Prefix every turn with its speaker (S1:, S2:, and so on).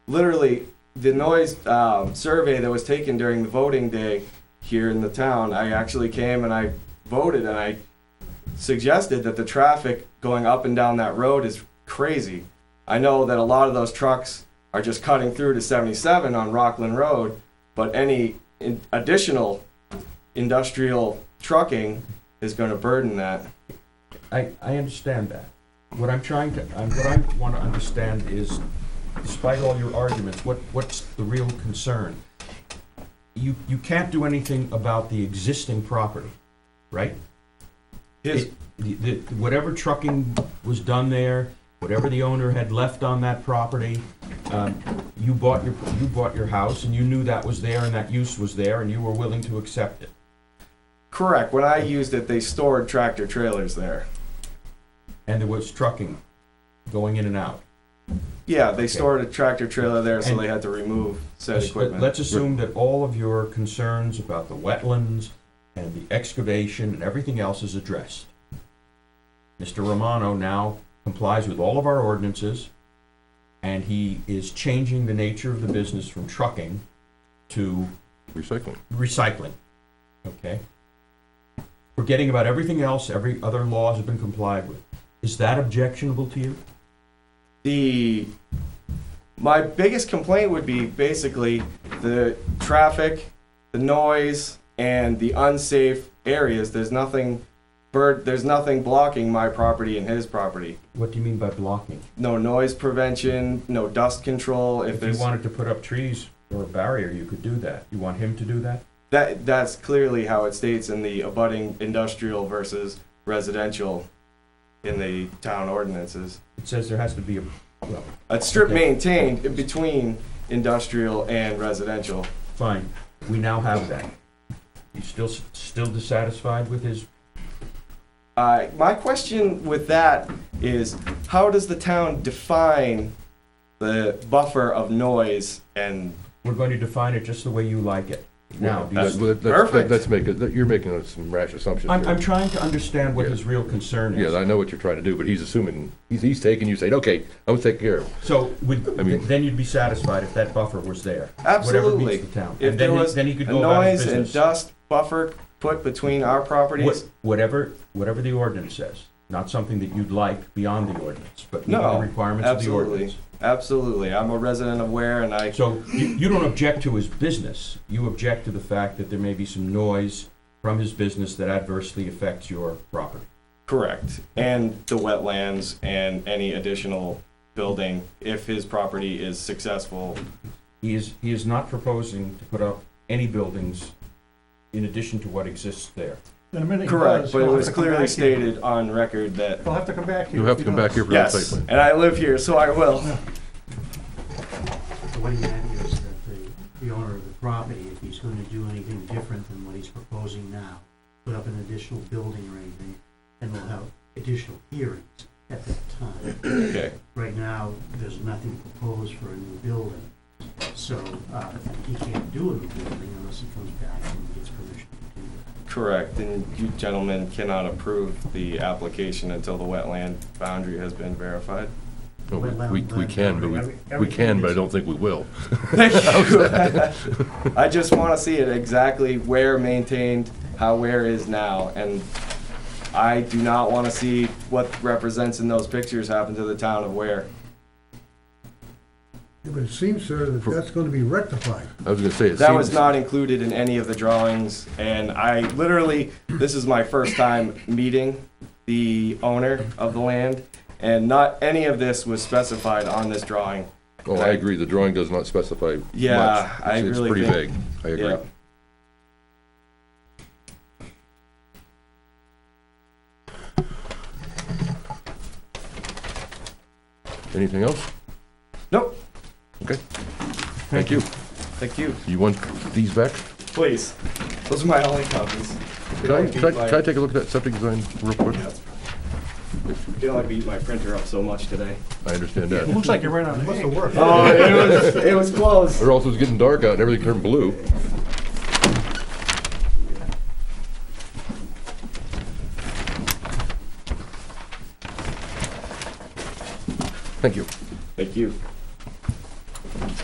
S1: literally the noise um, survey that was taken during the voting day here in the town, I actually came and I voted and I suggested that the traffic going up and down that road is crazy. I know that a lot of those trucks are just cutting through to 77 on Rockland Road, but any in- additional industrial trucking is going to burden that.
S2: I, I understand that. What I'm trying to, I'm- what I want to understand is, despite all your arguments, what, what's the real concern? You, you can't do anything about the existing property, right?
S1: His,
S2: It- the- the- Whatever trucking was done there, whatever the owner had left on that property, um, you bought your, you bought your house, and you knew that was there, and that use was there, and you were willing to accept it.
S1: correct. When I used it, they stored tractor trailers there.
S2: And there was trucking going in and out.
S1: Yeah, they
S2: Okay.
S1: stored a tractor trailer there, so
S2: And-
S1: they had to remove said
S2: Let's-
S1: equipment.
S2: Let's assume that all of your concerns about the wetlands and the excavation and everything else is addressed. Mr. Romano now complies with all of our ordinances, and he is changing the nature of the business from trucking to
S3: recycling.
S2: recycling, okay? Forgetting about everything else, every other laws have been complied with. Is that objectionable to you?
S1: The my biggest complaint would be basically the traffic, the noise, and the unsafe areas. There's nothing bird there's nothing blocking my property and his property.
S2: What do you mean by blocking?
S1: No noise prevention, no dust control. If,
S2: If you
S1: there's
S2: wanted to put up trees or a barrier, you could do that. You want him to do that?
S1: that that's clearly how it states in the abutting industrial versus residential in the town ordinances.
S2: It says there has to be a, well,
S1: A strip
S2: Okay.
S1: maintained in between industrial and residential.
S2: fine, we now have that. You still, s- still dissatisfied with his,
S1: Uh, my question with that is, how does the town define the buffer of noise? And
S2: we're going to define it just the way you like it. Now, do you-
S3: Well, let- let's-
S1: perfect.
S3: Let's make it, you're making some rash assumptions
S2: I'm,
S3: here.
S2: I'm trying to understand what his real concern
S3: Yeah,
S2: is.
S3: I know what you're trying to do, but he's assuming, he's, he's taking, you saying, okay, I was taking care of. it."
S2: So, would,
S3: I mean-
S2: then you'd be satisfied if that buffer was there. Whatever
S1: Absolutely.
S2: meets the town.
S1: if
S2: And
S1: there
S2: then he,
S1: was
S2: then he could
S1: a
S2: go about his
S1: noise and
S2: business.
S1: dust buffer put between our
S2: What-
S1: properties,
S2: Whatever, whatever the ordinance says, not something that you'd like beyond the ordinance, but meeting the
S1: No,
S2: requirements of the
S1: absolutely.
S2: ordinance.
S1: absolutely. I'm a resident of Ware, and I
S2: So you, you don't object to his business, you object to the fact that there may be some noise from his business that adversely affects your property.
S1: correct. And the wetlands and any additional building, if his property is successful.
S2: He is, he is not proposing to put up any buildings in addition to what exists there.
S4: In a minute. he
S1: Correct,
S4: does.
S1: but it
S4: He'll have
S1: was
S4: to come
S1: clearly
S4: back here.
S1: stated on record that
S4: He'll have to come back here.
S3: You'll have
S4: if
S3: to come
S4: he
S3: back
S4: does.
S3: here for a site
S1: Yes,
S3: plan.
S1: and I live here, so I will.
S5: The way that is that the, the owner of the property, if he's gonna do anything different than what he's proposing now, put up an additional building or anything, then we'll have additional hearings at that time.
S1: Okay.
S5: Right now, there's nothing proposed for a new building, so, uh, he can't do a new building unless he comes back and gets permission to do that.
S1: Correct, and you gentlemen cannot approve the application until the wetland boundary has been verified.
S3: Well, We, we- we can, but we, we can, but I don't think we will.
S1: Thank you. I just want to see it exactly where maintained, how where is now, and I do not want to see what represents in those pictures happen to the town of Ware.
S6: Yeah, But it seems, sir, that that's gonna be rectified.
S3: I was gonna say, it
S1: That was
S3: seems-
S1: not included in any of the drawings, and I literally, this is my first time meeting the owner of the land, and not any of this was specified on this drawing.
S3: Oh, I agree, the drawing does not specify much.
S1: Yeah, I
S3: It's-
S1: really
S3: It's pretty
S1: think-
S3: vague, I
S1: Yeah.
S3: agree. Anything else?
S1: Nope,
S3: Thank you.
S1: thank you.
S3: You want these back?
S1: Please, those are my only copies. You
S3: Can I,
S1: can
S3: can I-
S1: only beat
S3: can I
S1: my-
S3: take a look at that septic design real quick?
S1: You can only beat my printer up so much today.
S3: I understand
S4: It
S3: that.
S4: looks like you ran out of ink.
S1: Oh, it was, it was close.
S3: It also is getting dark out and everything turned blue. Thank you.
S1: Thank you.